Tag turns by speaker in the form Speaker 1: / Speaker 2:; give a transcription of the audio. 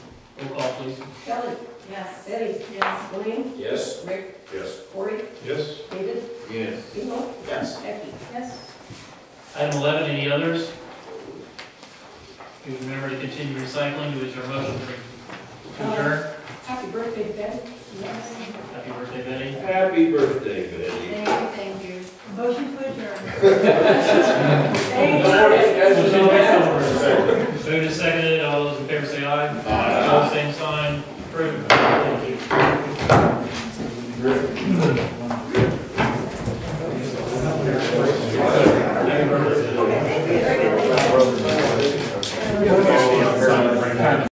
Speaker 1: Roll call, please.
Speaker 2: Kelly. Yes. Eddie. Yes. William.
Speaker 3: Yes.
Speaker 2: Rick.
Speaker 3: Yes.
Speaker 2: Corey.
Speaker 4: Yes.
Speaker 2: David.
Speaker 4: Yes.
Speaker 2: Emo.
Speaker 3: Yes.
Speaker 2: Becky. Yes.
Speaker 1: Item eleven, any others? Do remember to continue recycling, who is your motion to adjourn?
Speaker 2: Happy birthday, Ben. Yes.
Speaker 1: Happy birthday, Betty.
Speaker 4: Happy birthday, Betty.
Speaker 2: Thank you. Motion to adjourn.